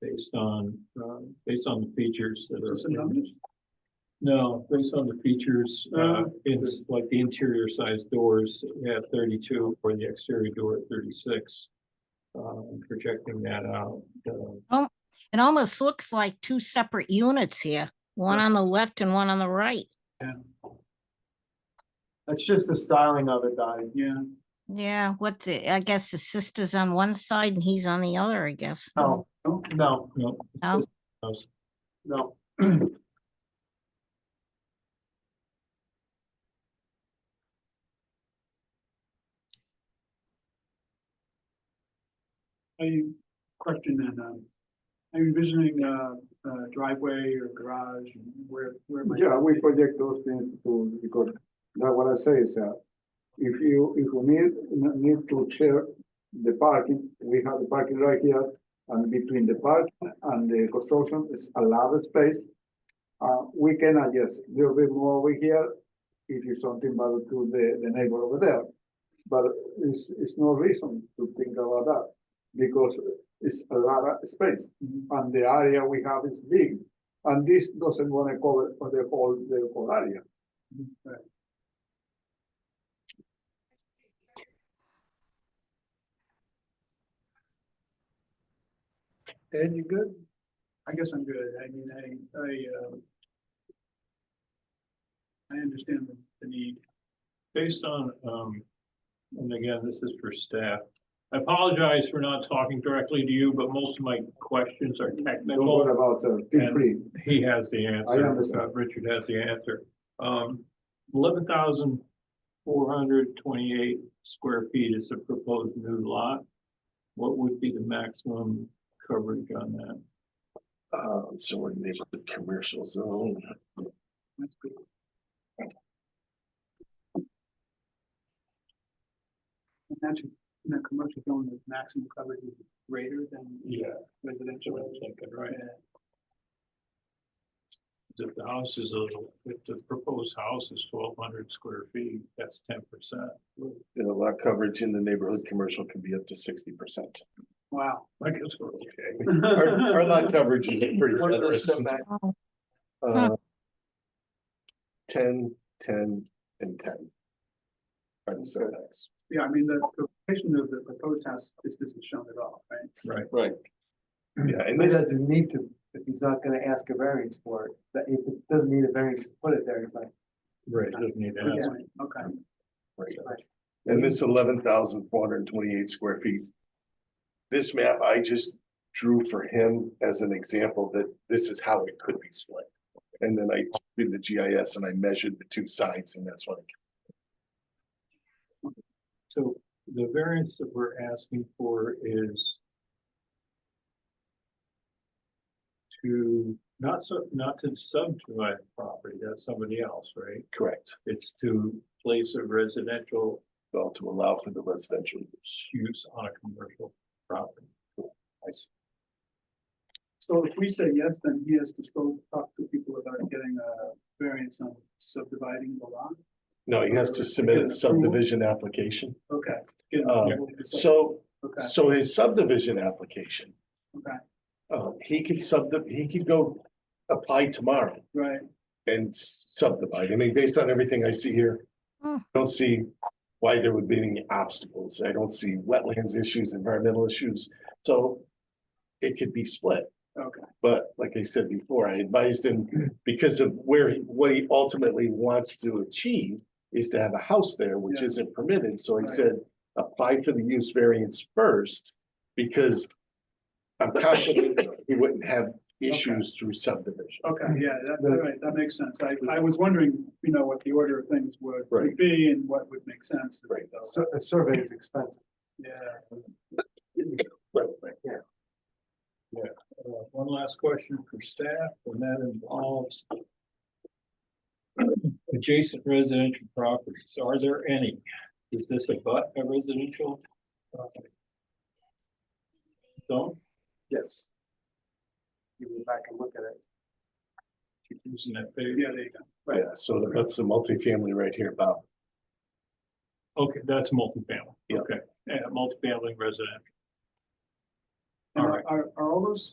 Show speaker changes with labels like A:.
A: based on, um, based on the features that are.
B: Just the numbers?
A: No, based on the features, uh,
B: Uh.
A: it's like the interior size doors at thirty-two or the exterior door at thirty-six. Um, projecting that out, uh,
C: It almost looks like two separate units here, one on the left and one on the right.
B: That's just the styling of it, Dottie. Yeah.
C: Yeah, what's it? I guess his sister's on one side and he's on the other, I guess.
B: No, no,
A: no,
C: No?
B: no.
D: Are you questioning, um, are you envisioning, uh, uh, driveway or garage and where, where might?
E: Yeah, we project those things to, because that what I say is that if you, if you need, need to share the parking, we have the parking right here. And between the park and the construction is a lot of space. Uh, we can adjust a little bit more over here if you something about to the, the neighbor over there. But it's, it's no reason to think about that because it's a lot of space. And the area we have is big. And this doesn't wanna cover for the whole, the whole area.
D: Ed, you good? I guess I'm good. I mean, I, I, uh, I understand the- the need.
A: based on, um, and again, this is for staff. I apologize for not talking directly to you, but most of my questions are
E: Don't
A: technical.
E: worry about that, feel
A: And-
E: free.
A: He has the answer.
E: understand.
A: Uh, Richard has the answer. Um, eleven thousand four hundred twenty-eight square feet is the proposed new lot. What would be the maximum coverage on that?
F: Uh, so we're neighborhood commercial zone.
D: That's good. And that's, in the commercial zone, the maximum coverage is greater than
A: Yeah,
D: residential.
A: I'm thinking, right. If the house is a, if the proposed house is twelve hundred square feet, that's ten percent.
F: And a lot coverage in the neighborhood commercial can be up to sixty percent.
D: Wow.
A: I guess we're okay.
F: Our, our lot coverage is pretty
B: What are the
F: generous.
B: setbacks?
C: Oh,
F: Uh, Ten, ten, and ten. Are the setbacks.
D: Yeah, I mean, the the location of the proposed house is isn't shown at all, right?
A: Right.
F: Right. Yeah, and
B: He
F: this,
B: doesn't need to, if he's not gonna ask a variance for it, that if it doesn't need a variance, to put it there, it's like,
A: Right. Doesn't need to ask.
D: Right, Okay,
F: right. and this eleven thousand four hundred and twenty-eight square feet. This map I just drew for him as an example that this is how it could be split. And then I did the GIS and I measured the two sides and that's what I
A: So the variance that we're asking for is to, not so, not to subdivide the property, that's somebody else, right?
F: Correct,
A: It's to place a residential
F: well, to allow for the residential use.
A: use on a commercial property. I see.
D: so if we say yes, then he has to go talk to people about getting a variance on subdividing the lot.
F: No, he has to submit
D: Get an
F: a subdivision application.
D: Okay. Get
F: Uh,
D: approval to sub-
F: So,
D: Okay,
F: so his subdivision application,
D: okay,
F: uh, he could sub, he could go apply tomorrow
D: right,
F: and s- subdivide. I mean, based on everything I see here,
C: Hmm.
F: I don't see why there would be any obstacles. I don't see wetlands issues, environmental issues. So it could be split.
D: okay,
F: But like I said before, I advised him because of where, he- what he ultimately wants to achieve is to have a house there, which
D: Yeah.
F: isn't permitted. So I
D: Right.
F: said, apply for the use variance first because I'm confident he wouldn't have issues through subdivision.
D: okay, yeah, that,
E: The-
D: right, that makes sense. I, I was wondering, you know, what the order of things would would
F: Right.
D: be and what would make sense.
F: Right.
D: So,
B: sur- a survey is expensive.
D: Yeah,
F: Right, right.
A: Uh, One last question for staff, and that involves adjacent residential properties. Are there any? Is this a but a residential? property? So,
B: Yes. You go back and look at it.
A: keep using that page.
D: yeah, there you go.
F: Yeah, so that's the multifamily right here, Bob.
A: Okay, that's multifamily.
F: Yeah.
A: Okay, yeah, multifamily residential.
D: And
A: All right.
D: Are, are all those